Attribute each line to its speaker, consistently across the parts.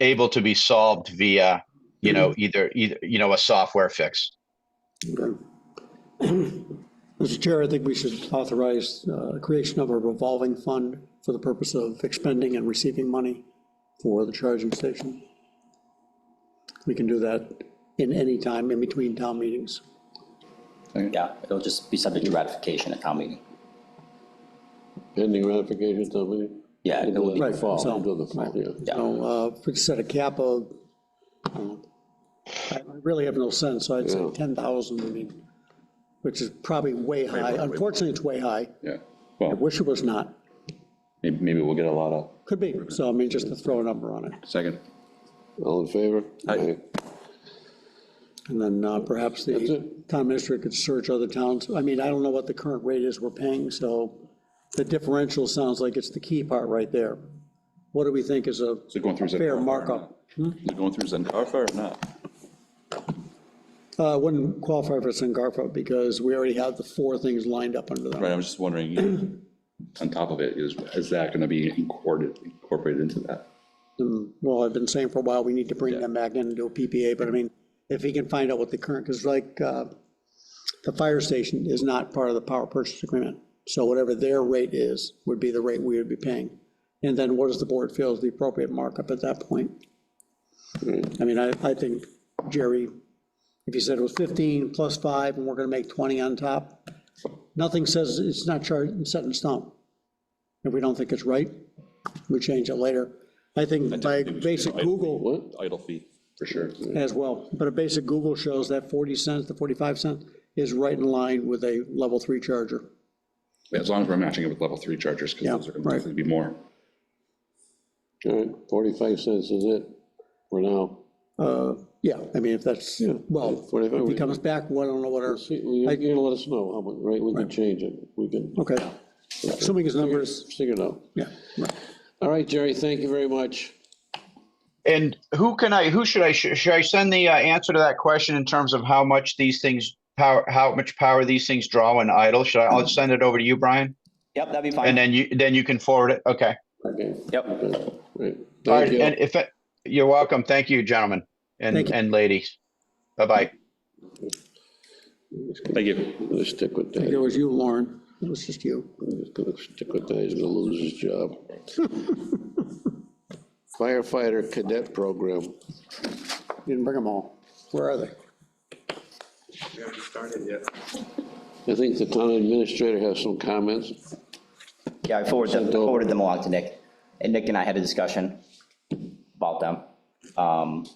Speaker 1: able to be solved via, you know, either, either, you know, a software fix.
Speaker 2: Mr. Chair, I think we should authorize uh, creation of a revolving fund for the purpose of expending and receiving money for the charging station. We can do that in any time in between town meetings.
Speaker 3: Yeah, it'll just be subject to ratification at town meeting.
Speaker 4: Pending ratification, tell me.
Speaker 3: Yeah, it will be,
Speaker 2: Right,
Speaker 4: Fall,
Speaker 2: so-
Speaker 4: into the fall, yeah.
Speaker 3: yeah,
Speaker 2: So, uh, if we set a cap of, I don't know, I I really have no sense, so I'd say
Speaker 4: Yeah.
Speaker 2: 10,000, I mean, which is probably way high. Unfortunately, it's way high.
Speaker 5: Yeah,
Speaker 2: I
Speaker 5: well,
Speaker 2: wish it was not.
Speaker 5: may- maybe we'll get a lot of,
Speaker 2: Could be, so I mean, just to throw a number on it.
Speaker 5: second,
Speaker 4: All in favor?
Speaker 5: Aye.
Speaker 2: And then uh, perhaps
Speaker 4: That's
Speaker 2: the
Speaker 4: it.
Speaker 2: town minister could search other towns. I mean, I don't know what the current rate is we're paying, so the differential sounds like it's the key part right there. What do we think is a
Speaker 5: is it going through? Zen
Speaker 2: fair
Speaker 5: Carfa or
Speaker 2: markup?
Speaker 5: not? Is it going through Zen Carfa or not?
Speaker 2: Uh, Wouldn't qualify for Sangarfa because we already have the four things lined up under
Speaker 5: Right,
Speaker 2: them.
Speaker 5: I was just wondering, you know, on top of it, is, is that gonna be incorporated, incorporated into that?
Speaker 2: And, Well, I've been saying for a while, we need to bring them back in and do a PPA, but I mean, if he can find out what the current, because like, uh, the fire station is not part of the power purchase agreement. So whatever their rate is, would be the rate we would be paying. And then what does the board feel is the appropriate markup at that point? I mean, I, I think, Jerry, if you said it was 15 plus five, and we're gonna make 20 on top, nothing says it's not charged and set in stone. If we don't think it's right, we change it later. I think by basic Google,
Speaker 5: Idle fee, for sure.
Speaker 2: as well, but a basic Google shows that 40 cents to 45 cents is right in line with a level three charger.
Speaker 5: As long as we're matching it with level three chargers, because
Speaker 2: Yeah,
Speaker 5: those are gonna
Speaker 2: right.
Speaker 5: definitely be more.
Speaker 4: All right, 45 cents is it for now.
Speaker 2: Uh, Yeah, I mean, if that's, well, if
Speaker 4: 45.
Speaker 2: he comes back, well, I don't know what our,
Speaker 4: See, well, You're going to let us know, how much, right? We can change it. We can
Speaker 2: okay, assuming his numbers,
Speaker 4: figure it out.
Speaker 2: yeah, right.
Speaker 4: All right, Jerry, thank you very much.
Speaker 1: And who can I, who should I, sh- should I send the uh, answer to that question in terms of how much these things, power, how much power these things draw when idle? Should I, I'll send it over to you, Brian?
Speaker 3: yep, that'd be
Speaker 1: And
Speaker 3: fine,
Speaker 1: then you, then you can forward it. Okay.
Speaker 4: Okay.
Speaker 3: yep.
Speaker 4: Good. Great.
Speaker 1: All right.
Speaker 4: Thank you.
Speaker 1: And if, it- you're welcome. Thank you, gentlemen and,
Speaker 2: Thank you.
Speaker 1: and ladies. Bye-bye.
Speaker 5: Thank you.
Speaker 4: Let's stick with
Speaker 2: It
Speaker 4: that.
Speaker 2: was you, Lauren, it was just you.
Speaker 4: He's gonna stick with that, he's gonna lose his job. Firefighter cadet program.
Speaker 2: You Didn't bring them all. Where are they?
Speaker 6: We haven't started yet.
Speaker 4: I think the town administrator has some comments.
Speaker 3: Yeah, I forwarded them,
Speaker 4: Sent over.
Speaker 3: forwarded them along to Nick, and Nick and I had a discussion about them. Um,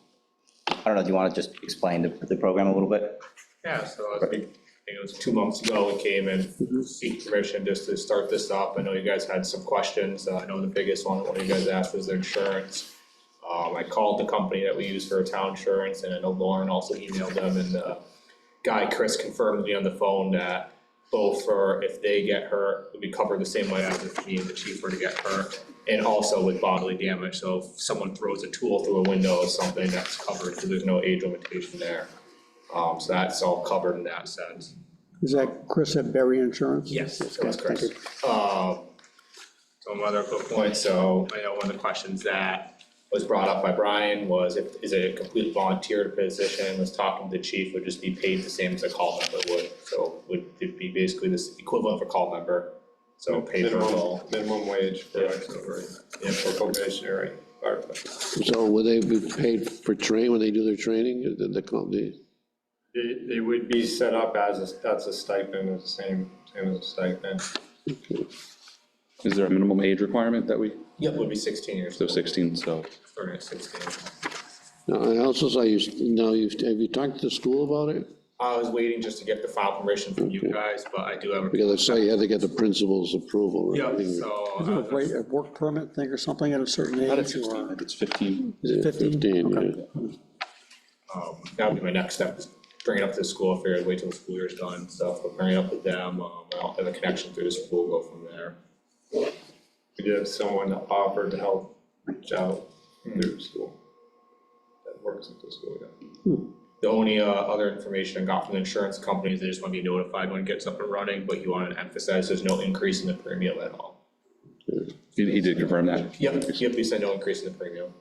Speaker 3: I don't know, do you want to just explain the, the program a little bit?
Speaker 6: Yeah, so I think, I think it was two months ago, we came and seek permission just to start this up. I know you guys had some questions. Uh, I know the biggest one, one of you guys asked was their insurance. Um, I called the company that we use for town insurance and I know Lauren also emailed them and the guy, Chris, confirmed with me on the phone that both for if they get hurt, it'll be covered the same way as if me and the chief were to get hurt. And also with bodily damage, so if someone throws a tool through a window or something, that's covered, because there's no age limitation there. Um, so that's all covered in that sense.
Speaker 2: Is that Chris at Berry Insurance?
Speaker 6: Yes,
Speaker 2: Yes,
Speaker 6: that's
Speaker 2: thank
Speaker 6: correct. Um, so my other quick point, so I know one of the questions that was brought up by Brian was if, is it a complete volunteer position, was talking to the chief, would just be paid the same as a call member would, so would it be basically this equivalent of a call member? So paid for
Speaker 7: Minimum,
Speaker 6: all.
Speaker 7: minimum wage for auxiliary, yeah, for probationary firefighter.
Speaker 4: So will they be paid for train, when they do their training, the, the company?
Speaker 7: They, they would be set up as, a that's a stipend, it's the same, same as a stipend.
Speaker 5: Is there a minimum age requirement that we,
Speaker 6: Yep,
Speaker 7: Would be sixteen years,
Speaker 5: so 16, so,
Speaker 6: starting at sixteen.
Speaker 4: Now, I also saw you, now you've, have you talked to the school about it?
Speaker 6: I was waiting just to get the file permission from you guys, but I do have a.
Speaker 4: Because I saw you had to get the principal's approval. right?
Speaker 6: Yeah, so.
Speaker 2: A
Speaker 6: uh,
Speaker 2: rate- a work permit thing or something at a certain
Speaker 5: not at
Speaker 2: age
Speaker 5: 16,
Speaker 2: or
Speaker 5: if it's 15,
Speaker 2: is it 15?
Speaker 4: Fifteen, yeah.
Speaker 6: Um, that would be my next step, is bring it up to the school, I figured wait till the school year's done and stuff, but bring it up with them, um, I'll have a connection through the school, go from there.
Speaker 7: we did have someone that offered to help reach out
Speaker 6: Hmm.
Speaker 7: through school. That works at the school, yeah.
Speaker 6: The only, uh, other information I got from the insurance companies, they just wanna be notified when it gets up and running, but you wanna emphasize there's no increase in the premium at all.
Speaker 5: he he did confirm that.
Speaker 6: Yep, yep, they said no increase in the premium,